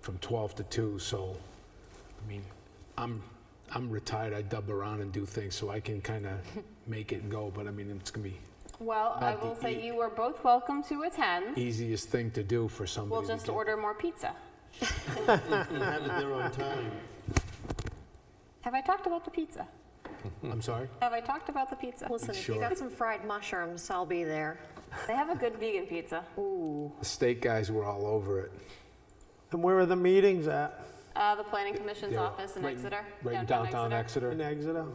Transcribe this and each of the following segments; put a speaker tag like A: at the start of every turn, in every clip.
A: from 12 to 2, so, I mean, I'm, I'm retired, I dub around and do things, so I can kind of make it go, but I mean, it's gonna be
B: Well, I
A: Not the
B: will say
A: eat.
B: you are both welcome to attend.
A: easiest thing to do for somebody.
B: We'll
A: to
B: just
A: get-
B: order more pizza.
C: and have it there on time.
B: Have I talked about the pizza?
A: I'm sorry?
B: Have I talked about the pizza?
D: Listen, if you
A: Sure.
D: got some fried mushrooms, I'll be there.
B: They have a good vegan pizza.
A: The state guys were all over it.
E: And where are the meetings at
B: Uh, the planning commission's
A: They were
B: office in
A: right
B: Exeter.
A: Right in downtown
E: in
A: Exeter.
E: Exeter?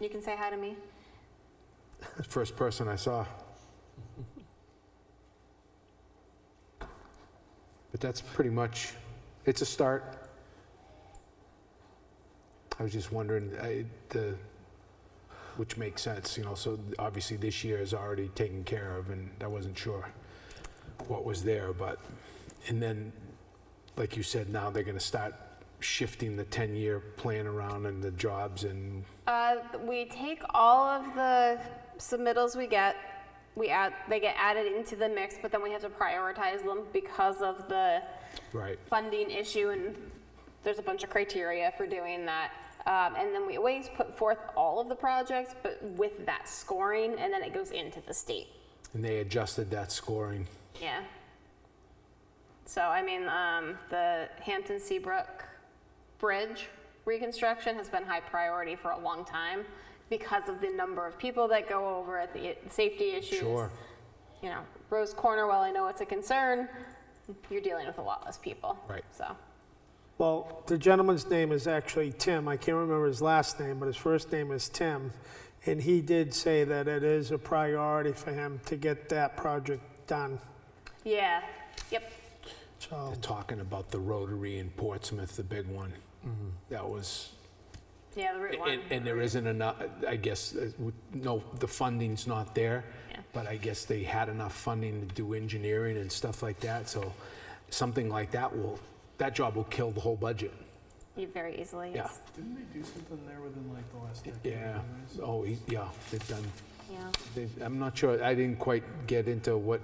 B: You can say hi to me.
A: First person I saw. But that's pretty much, it's a start. I was just wondering, I, the, which makes sense, you know, so obviously this year is already taken care of, and I wasn't sure what was there, but, and then, like you said, now they're gonna start shifting the 10-year plan around and the jobs and
B: Uh, we take all of the submittals we get. We add, they get added into the mix, but then we have to prioritize them because of the
A: Right.
B: funding issue, and there's a bunch of criteria for doing that. Um, and then we always put forth all of the projects, but with that scoring, and then it goes into the state.
A: And they adjusted that scoring.
B: Yeah. So, I mean, um, the Hampton Seabrook Bridge reconstruction has been high priority for a long time because of the number of people that go over it, the i- safety issues.
A: Sure.
B: You know, Rose Corner, while I know it's a concern, you're dealing with a lot less people.
A: Right.
B: So,
E: Well, the gentleman's name is actually Tim. I can't remember his last name, but his first name is Tim. And he did say that it is a priority for him to get that project done.
B: yeah. Yep.
E: So,
A: Talking about the Rotary in Portsmouth, the big one. That was,
B: Yeah, the Route 1.
A: and, and there isn't enough, I guess, uh, w- no, the funding's not there.
B: Yeah.
A: But I guess they had enough funding to do engineering and stuff like that, so something like that will, that job will kill the whole budget.
B: You very easily,
A: Yeah.
B: yes.
C: Didn't they do something there within like the last decade?
A: Yeah, oh, e- yeah, they've done,
B: Yeah.
A: they, I'm not sure, I didn't quite get into what,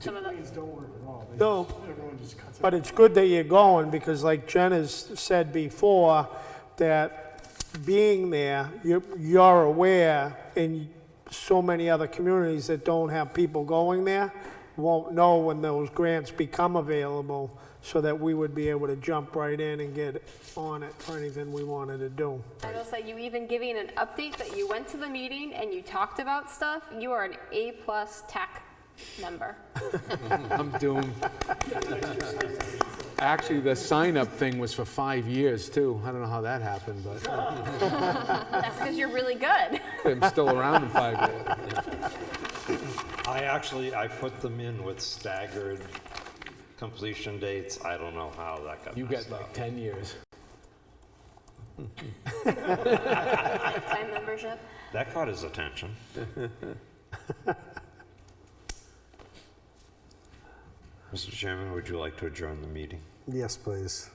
B: Some of the,
C: Things don't work at all. They
E: No.
C: just- Everyone just cuts
E: but it's good that you're going because like Jen has said before, that being there, you're, you're aware in so many other communities that don't have people going there won't know when those grants become available so that we would be able to jump right in and get on it for anything we wanted to do.
B: I will say, you even giving an update that you went to the meeting and you talked about stuff, you are an A-plus tech member.
A: I'm doomed. Actually, the sign-up thing was for five years, too. I don't know how that happened, but.
B: That's because you're really good.
A: I'm still around in five years.
F: I actually, I put them in with staggered completion dates. I don't know how that got
A: You
F: messed
A: got like
F: up.
A: 10 years.
B: Lifetime membership.
F: That caught his attention. Mr. Chairman, would you like to adjourn the meeting?
G: Yes, please.